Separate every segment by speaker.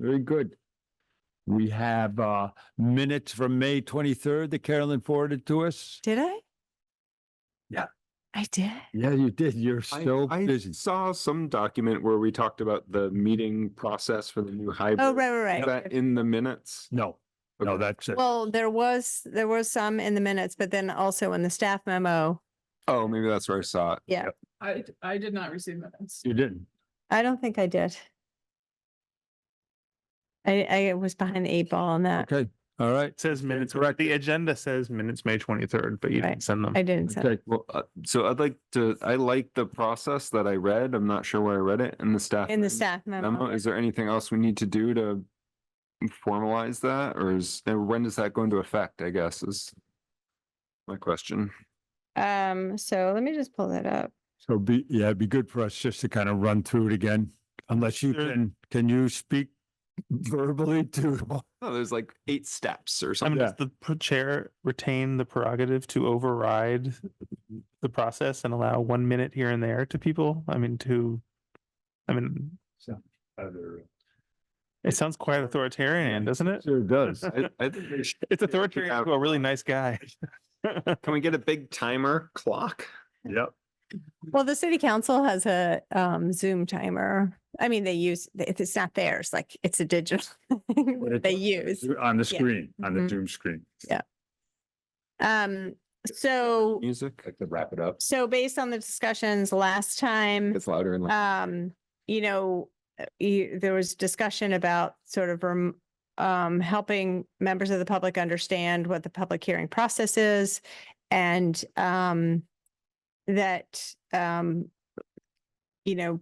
Speaker 1: Very good. We have uh, minutes from May 23rd that Carolyn forwarded to us.
Speaker 2: Did I?
Speaker 1: Yeah.
Speaker 2: I did.
Speaker 1: Yeah, you did. You're
Speaker 3: I-
Speaker 1: still
Speaker 3: I
Speaker 1: busy.
Speaker 3: Saw some document where we talked about the meeting process for the new hybrid.
Speaker 2: Oh, right, right,
Speaker 3: Is
Speaker 2: right.
Speaker 3: that in the minutes?
Speaker 1: No, no,
Speaker 3: Okay.
Speaker 1: that's it.
Speaker 2: Well, there was, there was some in the minutes, but then also in the staff memo.
Speaker 3: Oh, maybe that's where I saw it.
Speaker 4: I, d- I did not receive minutes.
Speaker 1: You didn't.
Speaker 2: I don't think I did. I, I was behind the eight ball on that.
Speaker 1: Okay, all right.
Speaker 5: Says minutes, correct. The agenda says minutes, May twenty-third, but you
Speaker 2: Right.
Speaker 5: didn't send them.
Speaker 2: I didn't. send-
Speaker 1: Okay,
Speaker 3: Well, uh, so I'd like to, I like the process that I read. I'm not sure where I read it in the staff.
Speaker 2: In the
Speaker 3: mem-
Speaker 2: staff
Speaker 3: memo.
Speaker 2: memo.
Speaker 3: Is there anything else we need to do to formalize that or is, and when does that go into effect, I guess is my question.
Speaker 2: Um, so let me just pull that up.
Speaker 1: so be, yeah, it'd be good for us just to kind of run through it again, unless you
Speaker 5: Sure.
Speaker 1: can, can you speak verbally to?
Speaker 3: No, Oh, there's like eight steps or
Speaker 5: I mean,
Speaker 3: something.
Speaker 5: does the pr- chair retain the prerogative to override the process and allow one minute here and there to people? I mean, to, I mean, it sounds quite authoritarian, doesn't it?
Speaker 1: Sure does.
Speaker 3: I, I think we should-
Speaker 5: It's authoritarian to a really nice guy.
Speaker 3: Can we get a big timer clock?
Speaker 1: Yep.
Speaker 2: Well, the city council has a um Zoom timer. I mean, they use, if it's not theirs, like it's a digital thing
Speaker 1: But
Speaker 2: that
Speaker 1: it's
Speaker 2: they
Speaker 1: on-
Speaker 2: use.
Speaker 1: On the screen, on the
Speaker 3: Mm-hmm.
Speaker 2: Mhm.
Speaker 1: Zoom screen.
Speaker 2: Um, so,
Speaker 3: Music? Like to wrap it up.
Speaker 2: so based on the discussions last time.
Speaker 3: It's louder and louder.
Speaker 2: um, you know, uh, you, there was discussion about sort of rem- um, helping members of the public understand what the public hearing process is and um, that um, you know,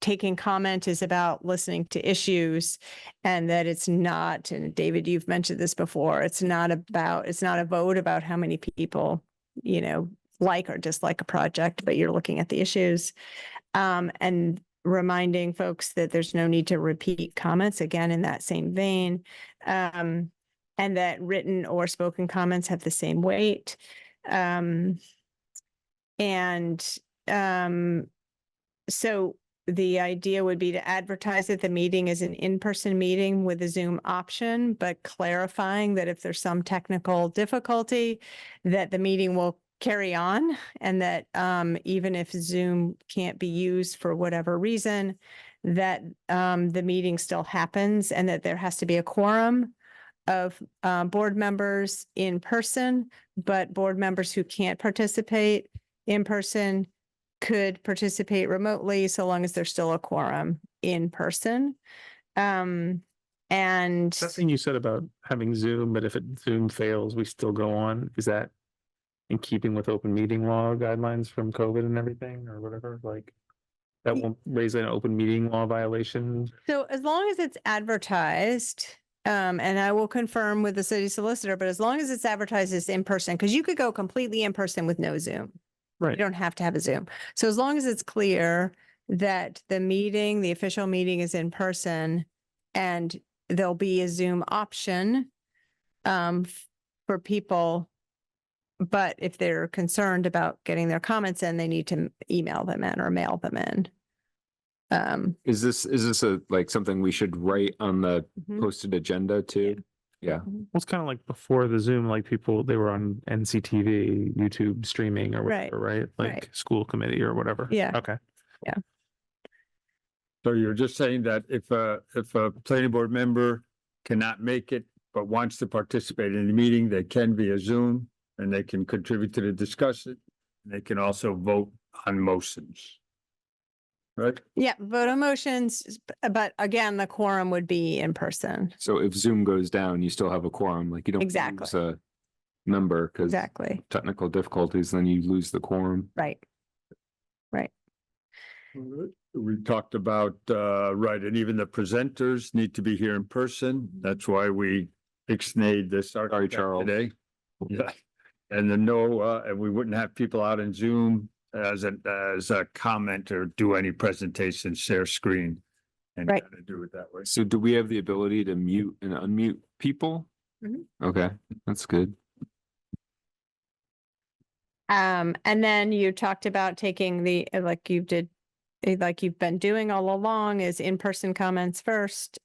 Speaker 2: taking comment is about listening to issues and that it's not, and David, you've mentioned this before, it's not about, it's not a vote about how many people, you know, like or dislike a project, but you're looking at the issues. Um, and reminding folks that there's no need to repeat comments again in that same vein. Um, and that written or spoken comments have the same weight. Um, and, um, so the idea would be to advertise that the meeting is an in-person meeting with a Zoom option, but clarifying that if there's some technical difficulty, that the meeting will carry on and that um, even if Zoom can't be used for whatever reason, that um, the meeting still happens and that there has to be a quorum of uh, board members in person, but board members who can't participate in person could participate remotely so long as there's still a quorum in person. Um, and
Speaker 5: That thing you said about having Zoom, but if it Zoom fails, we still go on, is that in keeping with open meeting law guidelines from COVID and everything or whatever, like? That
Speaker 2: Ye-
Speaker 5: won't raise an open meeting law violation?
Speaker 2: So as long as it's advertised, um, and I will confirm with the city solicitor, but as long as it's advertised as in person, because you could go completely in person with no Zoom. You
Speaker 5: Right.
Speaker 2: don't have to have a Zoom. So as long as it's clear that the meeting, the official meeting is in person and there'll be a Zoom option um, f- for people. But if they're concerned about getting their comments in, they need to m- email them in or mail them in. Um,
Speaker 3: Is this, is this a, like something we should write on the
Speaker 2: mhm.
Speaker 3: posted agenda too? Yeah.
Speaker 5: Well, it's kind of like before the Zoom, like people, they were on NCTV, YouTube streaming or
Speaker 2: Right,
Speaker 5: whatever, right?
Speaker 2: right.
Speaker 5: Like school committee or whatever.
Speaker 2: Yeah.
Speaker 5: Okay.
Speaker 1: So you're just saying that if a, if a planning board member cannot make it, but wants to participate in the meeting, they can via Zoom and they can contribute to the discussion. and They can also vote on motions. Right?
Speaker 2: Yeah, vote on motions, s- b- but again, the quorum would be in person.
Speaker 3: So if Zoom goes down, you still have a quorum, like you don't.
Speaker 2: Exactly.
Speaker 3: lose A number because
Speaker 2: Exactly,
Speaker 3: technical difficulties, then you lose the quorum.
Speaker 2: right.
Speaker 1: We talked about, uh, right, and even the presenters need to be here in person. That's why we ixnayed this architect
Speaker 3: Charles.
Speaker 1: today. Yeah, and the no, uh, and we wouldn't have people out in Zoom as a, as a comment or do any presentation, share screen. And
Speaker 2: Right.
Speaker 1: kinda do it that way.
Speaker 3: So do we have the ability to mute and unmute people?
Speaker 2: Mhm.
Speaker 3: Okay, that's good.
Speaker 2: Um, and then you talked about taking the, uh, like you did, eh, like you've been doing all along is in-person comments first